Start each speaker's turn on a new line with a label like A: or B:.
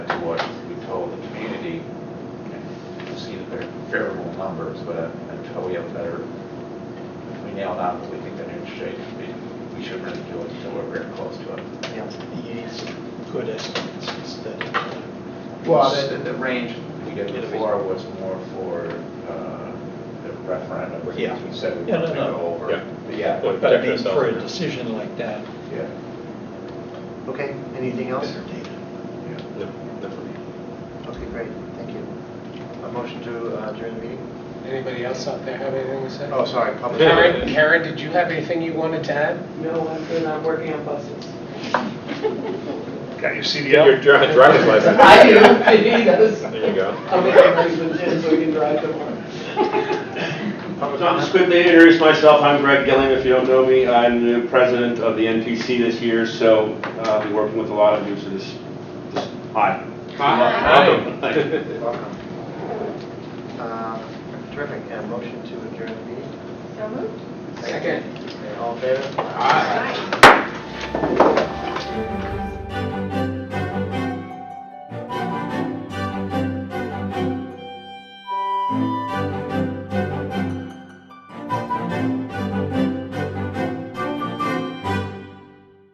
A: favorable numbers, but until we have better, if we nail down what we think the new shape should be, we shouldn't really do it until we're very close to it.
B: Yeah, you need some good estimates instead of. uh,
A: Well, the, the- the range we did before was more for uh, the referendum, which
B: Yeah.
A: we said we
B: Yeah, no,
A: wanted to
B: no.
A: go over.
C: Yeah.
A: But Yeah,
C: But-
B: But I
C: protect
B: mean,
C: ourselves
B: for a
C: here.
B: decision like that,
A: yeah,
D: Okay, anything else?
B: better data.
A: yeah.
C: No, not for me.
D: Okay, great, thank you. A motion to uh, adjourn the meeting?
E: Anybody else out there have anything to say?
D: Oh, sorry, public.
E: Karen, Karen, did you have anything you wanted to add?
F: No, I'm good, I'm working on buses.
G: Got your
C: Your
G: CDL?
C: dri- driver's license.
F: I do, I need those.
C: There you go.
F: I'll make them raise the tin so we can drive tomorrow.
D: Public
H: So I'll just
D: comment?
H: quickly introduce myself. I'm Greg Gilliam, if you don't know me. I'm the new president of the NPC this year, so uh, I'll be working with a lot of you, so just, just, hi. Welcome.
D: Welcome. Um, Terrific, and a motion to adjourn the meeting?
I: So moved.
E: Second.
D: Okay, All in favor?
I: Aye.